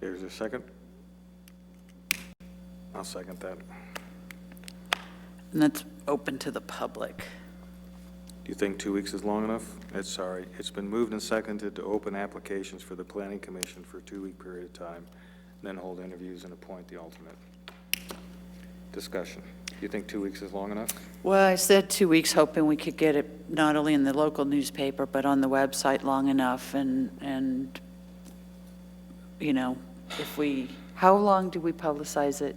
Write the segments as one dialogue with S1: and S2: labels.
S1: There's a second? I'll second that.
S2: And that's open to the public.
S1: Do you think two weeks is long enough? It's, sorry, it's been moved and seconded to open applications for the planning commission for a two-week period of time, then hold interviews and appoint the alternate. Discussion. Do you think two weeks is long enough?
S2: Well, I said two weeks, hoping we could get it not only in the local newspaper, but on the website long enough, and, and, you know, if we, how long do we publicize it?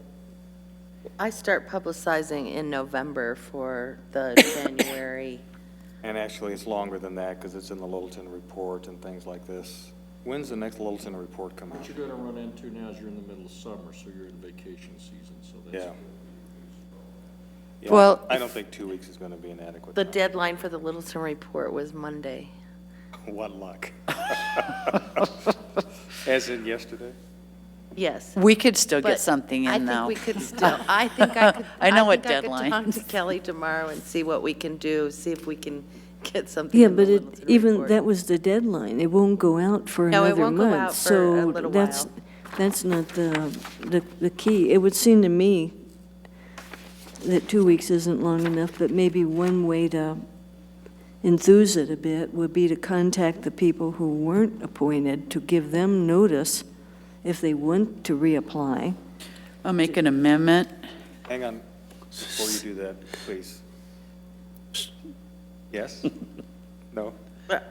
S3: I start publicizing in November for the January.
S1: And actually, it's longer than that because it's in the Littleton report and things like this. When's the next Littleton report come out?
S4: What you're gonna run into now is you're in the middle of summer, so you're in vacation season, so that's.
S1: Yeah. Yeah,
S2: Well,
S1: I don't think two weeks is going to be an adequate
S3: The
S1: time.
S3: deadline for the Littleton report was Monday.
S1: What luck. As in yesterday?
S3: Yes.
S2: We could still
S3: but
S2: get something in, though.
S3: I think we could still, I think I could.
S2: I know what
S3: think I could Talk to
S2: deadlines.
S3: Kelly tomorrow and see what we can do, see if we can get something
S5: Yeah,
S3: in the
S5: but it,
S3: Littleton
S5: even,
S3: report.
S5: that was the deadline. It won't go out for
S3: No, it
S5: another
S3: won't go
S5: month,
S3: out for a
S5: so
S3: little
S5: that's,
S3: while.
S5: that's not the, the, the key. It would seem to me that two weeks isn't long enough, but maybe one way to enthuse it a bit would be to contact the people who weren't appointed to give them notice if they want to reapply.
S2: I'll make an amendment.
S1: Hang on, before you do that, please. Yes? No?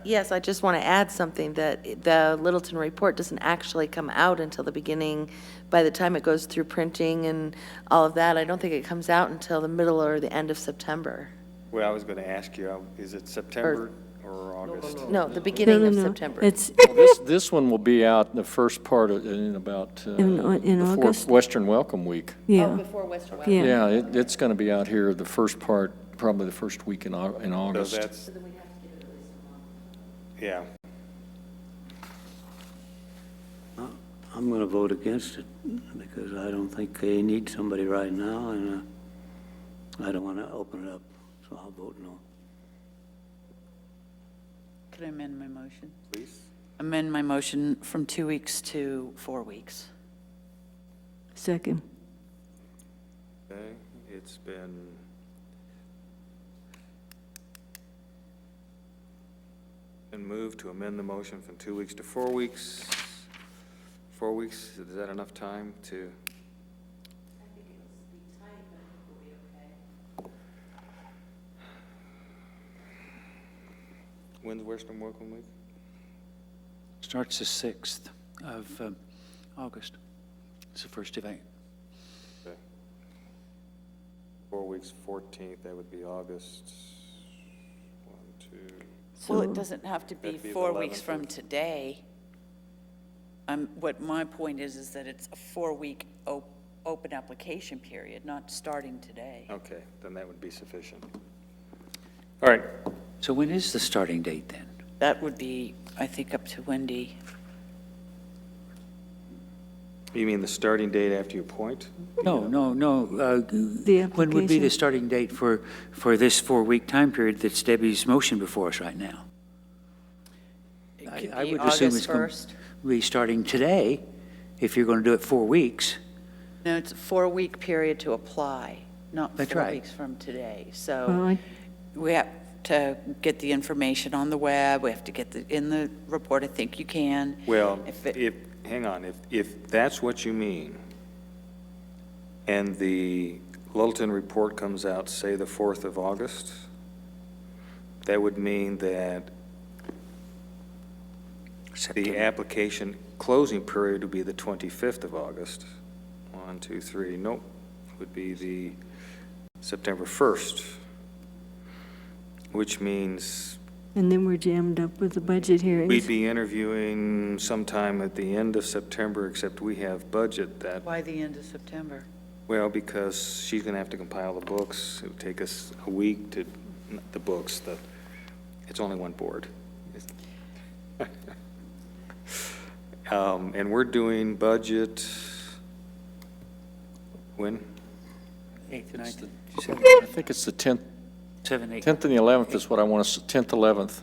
S3: Yes, I just want to add something, that the Littleton report doesn't actually come out until the beginning, by the time it goes through printing and all of that, I don't think it comes out until the middle or the end of September.
S1: Well, I was going to ask you, uh, is it September or August?
S3: No, the
S5: No,
S3: beginning
S5: no,
S3: of
S5: no.
S3: September.
S5: It's,
S4: Well, This, this one will be out the first part of, in about, uh,
S5: In- in
S4: before
S5: August?
S4: Western Welcome Week.
S5: yeah,
S3: Oh, before Western Wild.
S5: yeah.
S4: Yeah, it, it's gonna be out here the first part, probably the first week in Au, in
S1: So
S4: August.
S1: that's. Yeah,
S6: I'm going to vote against it because I don't think they need somebody right now, and uh, I don't want to open it up, so I'll vote no.
S2: Could I amend my motion?
S1: please.
S2: Amend my motion from two weeks to four weeks.
S5: Second.
S1: Okay, it's been. Been moved to amend the motion from two weeks to four weeks. Four weeks, is that enough time to? When's Western Welcome Week?
S7: Starts the 6th of um, August. It's the first event.
S1: Okay. Four weeks, 14th, that would be August. One, two.
S2: Well, it doesn't have to be
S1: Hmm. That'd be the
S2: four weeks
S1: 11th.
S2: from today. Um, what my point is, is that it's a four-week op- open application period, not starting today.
S1: Okay, then that would be sufficient. All right,
S7: So when is the starting date then?
S2: That would be, I think, up to Wendy.
S1: you mean the starting date after you appoint?
S7: No, no, no. uh,
S5: The
S7: When would be
S5: application.
S7: the starting date for, for this four-week time period that's Debbie's motion before us right now?
S2: It
S7: I-
S2: could
S7: I
S2: be
S7: would assume
S2: August
S7: it's gonna
S2: 1st.
S7: Be starting today, if you're going to do it four weeks.
S2: No, it's a four-week period to apply, not
S7: That's
S2: four
S7: right. Hmm.
S2: weeks from today.
S5: Well,
S2: So
S5: I-
S2: we have to get the information on the web, we have to get the, in the report, I think you can.
S1: Well,
S2: If it-
S1: if, hang on, if, if that's what you mean, and the Littleton report comes out, say, the 4th of August, that would mean that the
S7: September.
S1: application closing period would be the 25th of August. One, two, three, nope, would be the September 1st, which means
S5: And then we're jammed up with the budget hearings.
S1: We'd be interviewing sometime at the end of September, except we have budget that,
S2: By the end of September.
S1: well, because she's going to have to compile the books. It would take us a week to, not the books, the, it's only one board. Um, And we're doing budget, when?
S7: 8th,
S4: It's
S7: 9th,
S4: the-
S7: 7th,
S4: I think it's the tenth,
S7: 7th, 8th.
S4: tenth and the eleventh is what I want to, tenth, eleventh.